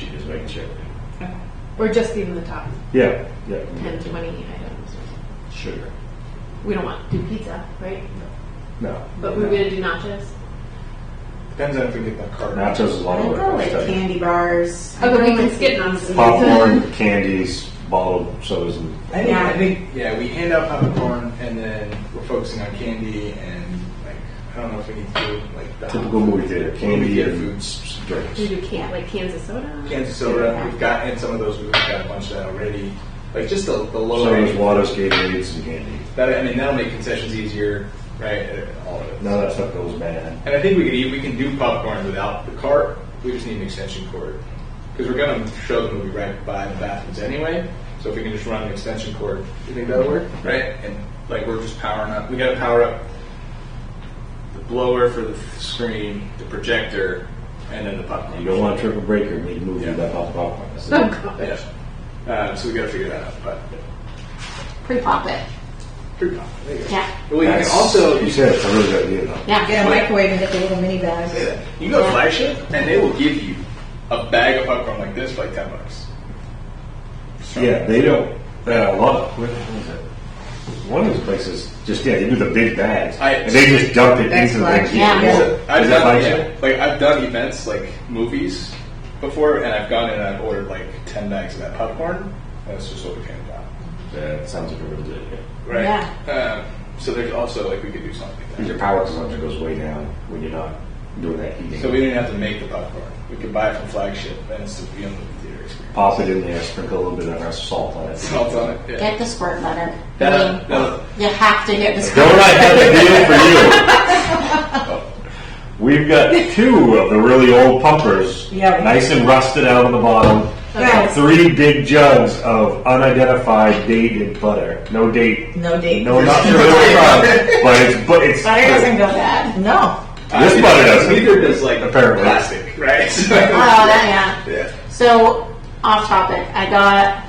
making sure. Or just even the top Yeah, yeah. 10, 20 items. Sugar. We don't want to do pizza, right? No. But we're going to do nachos. Depends on if we get that card. Nachos is one I'll of go those. with candy bars. Okay, Oh, we can skip nachos. Popcorn, candies, bottled sodas, and I think, Yeah. I think, yeah, we hand out popcorn and then we're focusing on candy and like, I don't know if we need food, like the typical movie theater Movie candy theater and foods. foods, drinks. Mm-hmm. We do can like cans of soda. cans of soda. We've got, and some of those we've got a bunch of that already. Like just the, the So lower there's rating. waters, Gatorades, and candy. That, I mean, that'll make concessions easier, right? uh, All of it. None of that stuff goes bad. And I think we could eat, we can do popcorn without the cart. We just need an extension cord because we're going to show the movie right by the bathrooms anyway. So if we can just run an extension cord, you think that'll work? Right. And like we're just powering up. We got to power up the blower for the screen, the projector, and then the popcorn. You don't want a triple breaker in a movie Yeah. that pops popcorn. That's Oh, it. God. Yeah. Uh, so we got to figure that out. But Pre-pop it. pretty pop. There you go. Yeah. Well, you can That's- also you said it's a really good idea though. Yeah. Get a Wait. microwave and get the little mini bags. You go to flagship, and they will give you a bag of popcorn like this for like ten bucks. Yeah, they don't. Uh, a lot of what is it? One of those places just yeah, they do the big bags I- and they just dump it That's into the like- things. yeah. Is Yeah. it- I've is that done like yeah, you? like I've done events like movies before, and I've gone in and I've ordered like ten bags of that popcorn. and That's just what we handed out, That sounds like a really good idea. right? Yeah. Um, so there's also like we could do something like Because your that. power consumption goes way down when you're not doing that heating. So we didn't have to make the popcorn. We could buy it from flagship, and it's the movie theater experience. pop it in there, sprinkle a little bit of our salt on it. Salt on it. Yeah. Get the squirt butter. I That- mean, that- you have to get the squirt. Don't I have a deal for you? We've got two of the really old pumpers, Yeah. nice and rusted out on the bottom. Yes. Three big jugs of unidentified dated butter. No date. No date. No, not your real product, but it's but it's Butter doesn't go bad. No. This butter doesn't. Neither does like Apparently. plastic, right? So, Oh, that, yeah. yeah. So, off topic, I got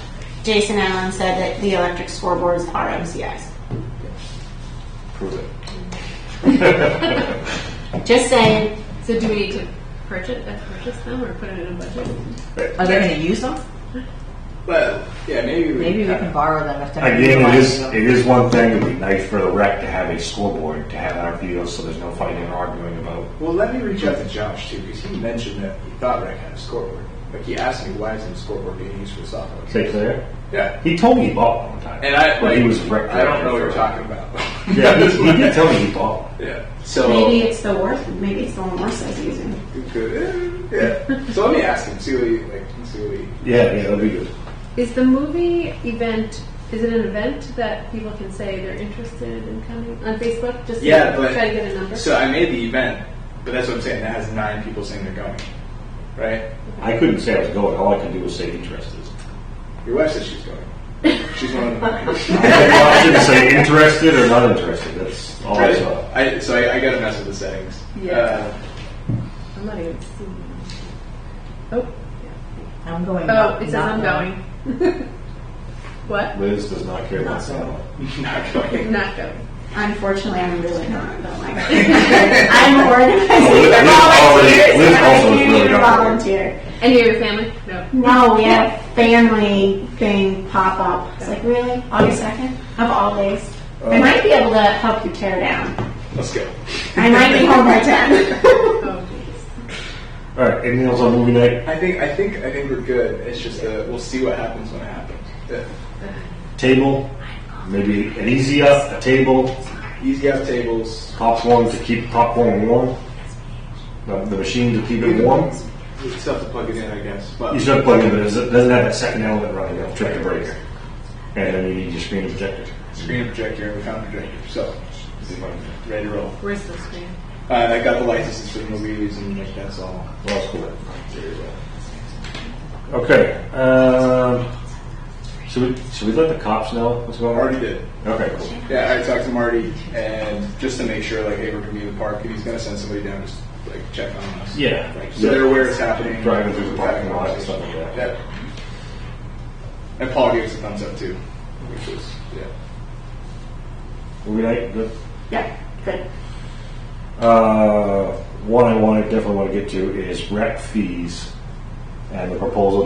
Jason Allen said that the electric scoreboards are MCIs. Prove it. Just saying. So do we need to purchase, uh, purchase them or put it in a budget? Are they going to use them? But yeah, maybe we Maybe we kinda- can borrow them if they're Again, it is utilizing it them. is one thing it would be nice for the rec to have a scoreboard to have our videos, so there's no fighting or arguing about. Well, let me reach out to Josh too, because he mentioned that he thought Rec had a scoreboard. Like he asked me, why isn't the scoreboard being used for the softball? Say Claire. Yeah, He told me he bought one time, and I but like, he was a rec. I don't know director what you're for- talking about. Yeah, he, he did tell me he bought. one. yeah. So Maybe it's the worst, maybe it's the one worse that's using. You could- yeah. So let me ask him. See what he like. See what he. Yeah, yeah, that'd be good. Is the movie event, is it an event that people can say they're interested in coming on Facebook? Just Yeah, to but try to get a number? so I made the event, but that's what I'm saying. That has nine people saying they're going, right? I couldn't say I was going. All I could do was say interested. Your wife says she's going. She's one of the nine. I couldn't say interested or not interested. That's all I saw. I, so I, I got to mess with the settings. Yeah. Uh, I'm not even seeing it. Oh, I'm going. oh, not- it says not I'm going. going. What? Liz does not care about sound. Uh, not going. Not going. Unfortunately, I'm really not, but like, I'm organizing Liz already- Liz the volunteers. and also I is can't really even not organizing. volunteer. Any of your family? No. No, we had a family thing pop up. It's like, really? August 2nd? Of all days? I might be able to help you tear down. Let's go. I might be home by 10. Oh, geez. All right, anything else on movie night? I think I think I think we're good. It's just uh, we'll see what happens when it happens. Yeah. Table, maybe an easy up, a table, Easy out tables. popcorn to keep popcorn warm, the, the machine to keep it warm. We still have to plug it in, I guess. But You should have plugged in, but it doesn't doesn't have that second element running. It'll trip the breaker, and then you need your screen projector. screen projector and we found a projector. So let's see if I'm ready to roll. Where's the screen? Uh, I got the licenses for the movies and like that's all. Well, that's cool. Okay. Um, should we should we let the cops know what's I going on? already did. Okay, cool. Yeah, I talked to Marty and just to make sure like hey we're gonna be in the park and he's gonna send somebody down just like check on us. Yeah. Like, so they're aware it's happening. Driving through the parking lot and stuff like that. Yep. And Paul gave us a thumbs up too, which was yeah. Movie night, good. yep, good. Uh, one I want to definitely want to get to is rec fees and the proposal